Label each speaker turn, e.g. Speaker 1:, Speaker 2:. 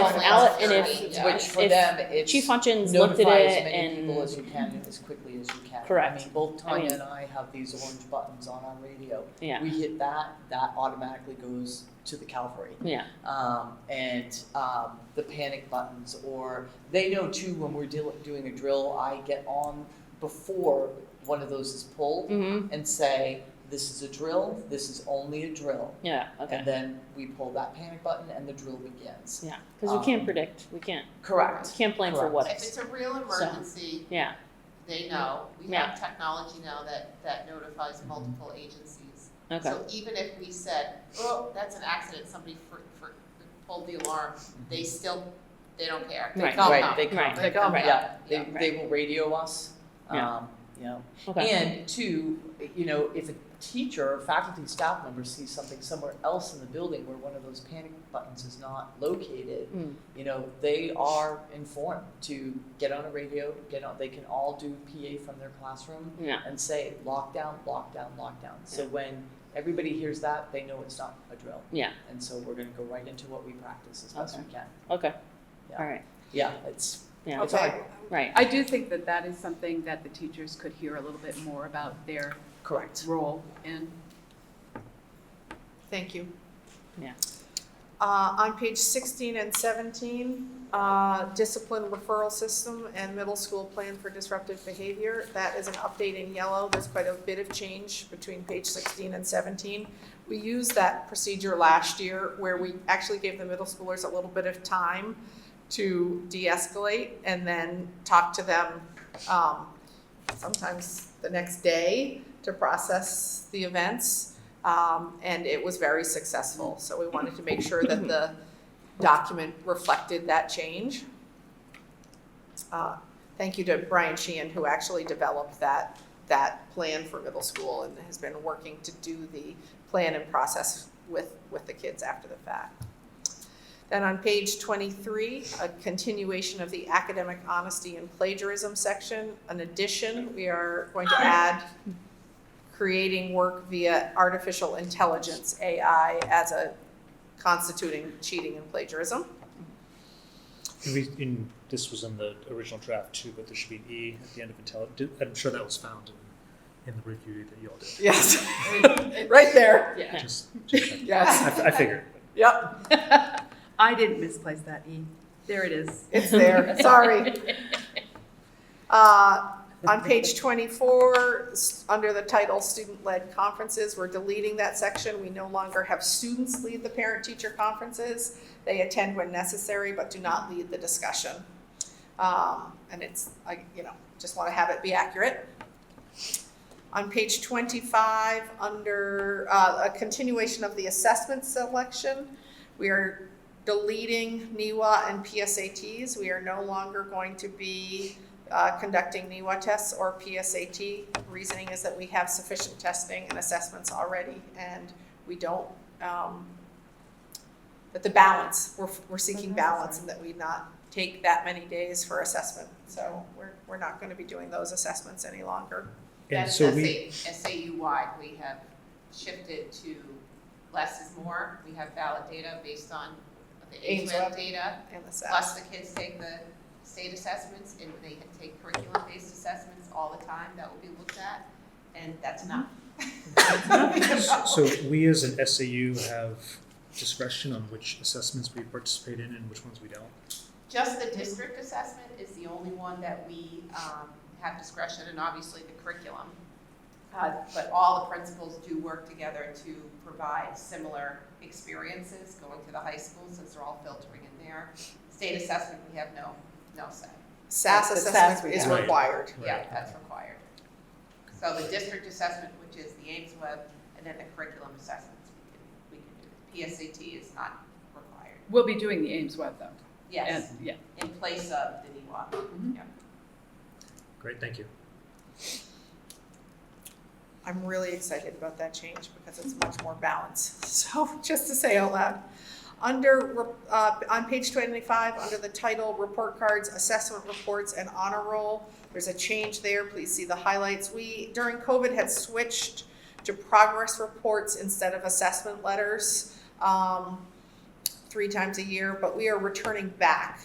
Speaker 1: itself out and if,
Speaker 2: Yeah.
Speaker 1: which-
Speaker 3: for
Speaker 1: if
Speaker 3: them, it's
Speaker 1: Chief Hutchins looked at
Speaker 3: notify as
Speaker 1: it
Speaker 3: many people as
Speaker 1: and,
Speaker 3: you can and as quickly as you can.
Speaker 1: Correct.
Speaker 3: I mean, both
Speaker 1: I
Speaker 3: Tanya
Speaker 1: mean-
Speaker 3: and I have these orange buttons on our radio.
Speaker 1: yeah,
Speaker 3: We hit that, that automatically goes to the Calvary.
Speaker 1: yeah,
Speaker 3: um, and um, the panic buttons, or they know too when we're deal- doing a drill. I get on before one of those is pulled
Speaker 1: mm-hmm,
Speaker 3: and say, "This is a drill. This is only a drill."
Speaker 1: yeah, okay.
Speaker 3: And then we pull that panic button, and the drill begins.
Speaker 1: Yeah, because we can't
Speaker 3: Um,
Speaker 1: predict, we can't, we
Speaker 3: Correct.
Speaker 1: can't plan for
Speaker 3: Correct.
Speaker 1: what
Speaker 2: If
Speaker 1: ifs,
Speaker 2: it's a real emergency,
Speaker 1: yeah,
Speaker 2: they know. We have technology now that, that notifies multiple agencies.
Speaker 1: okay,
Speaker 2: So even if we said, oh, that's an accident, somebody for, for, pulled the alarm, they still, they don't care. They
Speaker 1: Right.
Speaker 2: come
Speaker 3: right.
Speaker 2: up.
Speaker 3: They come.
Speaker 1: Right.
Speaker 3: They come.
Speaker 1: Right.
Speaker 3: Yeah. They,
Speaker 2: Yeah.
Speaker 3: they will radio us.
Speaker 1: Yeah.
Speaker 3: Um, you know.
Speaker 1: okay,
Speaker 3: And two, you know, if a teacher or faculty staff member sees something somewhere else in the building where one of those panic buttons is not located,
Speaker 1: Mm.
Speaker 3: you know, they are informed to get on a radio, get on, they can all do PA from their classroom
Speaker 1: yeah,
Speaker 3: and say lockdown, lockdown, lockdown. So when everybody hears that, they know it's not a drill.
Speaker 1: Yeah.
Speaker 3: And so we're gonna go right into what we practice as best we can.
Speaker 1: okay,
Speaker 3: Yeah.
Speaker 1: all right,
Speaker 3: Yeah, it's,
Speaker 1: yeah,
Speaker 3: it's hard,
Speaker 1: right,
Speaker 4: I do think that that is something that the teachers could hear a little bit more about their
Speaker 3: correct.
Speaker 4: role in.
Speaker 5: Thank you.
Speaker 1: Yeah.
Speaker 5: Uh, on page sixteen and seventeen, uh, discipline referral system and middle school plan for disruptive behavior. That is an update in yellow. There's quite a bit of change between page sixteen and seventeen. We used that procedure last year where we actually gave the middle schoolers a little bit of time to de-escalate and then talk to them, um, sometimes the next day to process the events. Um, and it was very successful, so we wanted to make sure that the document reflected that change. Uh, Thank you to Brian Sheehan, who actually developed that, that plan for middle school and has been working to do the plan and process with, with the kids after the fact. Then on page twenty-three, a continuation of the academic honesty and plagiarism section. An addition, we are going to add creating work via artificial intelligence, AI, as a constituting cheating and plagiarism.
Speaker 6: And we, in, this was in the original draft too, but there should be an E at the end of intelligent, I'm sure that was found in, in the review that y'all did.
Speaker 5: Yes. Right there,
Speaker 1: Yeah.
Speaker 6: Just, just checking.
Speaker 5: yes,
Speaker 6: I, I figured.
Speaker 5: yep,
Speaker 4: I didn't misplace that E. There it is.
Speaker 5: it's there, sorry. Uh, on page twenty-four, s- under the title student-led conferences, we're deleting that section. We no longer have students lead the parent-teacher conferences. They attend when necessary, but do not lead the discussion. Um, and it's, I, you know, just wanna have it be accurate. On page twenty-five, under, uh, a continuation of the assessment selection, we are deleting NEWA and PSATs. We are no longer going to be, uh, conducting NEWA tests or PSAT. Reasoning is that we have sufficient testing and assessments already, and we don't, um, that the balance, we're, we're seeking balance and that we not take that many days for assessment. So we're, we're not gonna be doing those assessments any longer.
Speaker 6: And
Speaker 2: That's
Speaker 6: so
Speaker 2: SA,
Speaker 6: we,
Speaker 2: SAU-wide, we have shifted to less is more. We have valid data based on the
Speaker 5: Ames
Speaker 2: AIMS
Speaker 5: Web.
Speaker 2: data.
Speaker 5: And the
Speaker 2: Plus the kids take the state assessments and they take curriculum-based assessments all the time. That will be looked at. And that's enough.
Speaker 6: so we as an SAU have discretion on which assessments we participate in and which ones we don't.
Speaker 2: Just the district assessment is the only one that we um, have discretion, and obviously the curriculum. Uh, But all the principals do work together to provide similar experiences going to the high school, since they're all filtering in there. State assessment, we have no, no say.
Speaker 5: SAS
Speaker 2: The SAS
Speaker 5: assessment
Speaker 2: we
Speaker 5: is
Speaker 6: have. Right.
Speaker 5: required.
Speaker 2: Yeah,
Speaker 6: Right.
Speaker 2: that's required. So the district assessment, which is the Ames Web, and then the curriculum assessments we can, we can do. PSAT is not required.
Speaker 4: We'll be doing the Ames Web though.
Speaker 2: Yes,
Speaker 4: And- Yeah.
Speaker 2: in place of the NEWA.
Speaker 6: Great, thank you.
Speaker 5: I'm really excited about that change because it's much more balanced. So just to say out loud, under uh, on page 25, under the title "Report Cards, Assessment Reports, and Honor Roll," there's a change there. Please see the highlights. We during COVID had switched to progress reports instead of assessment letters. Um, three times a year, but we are returning back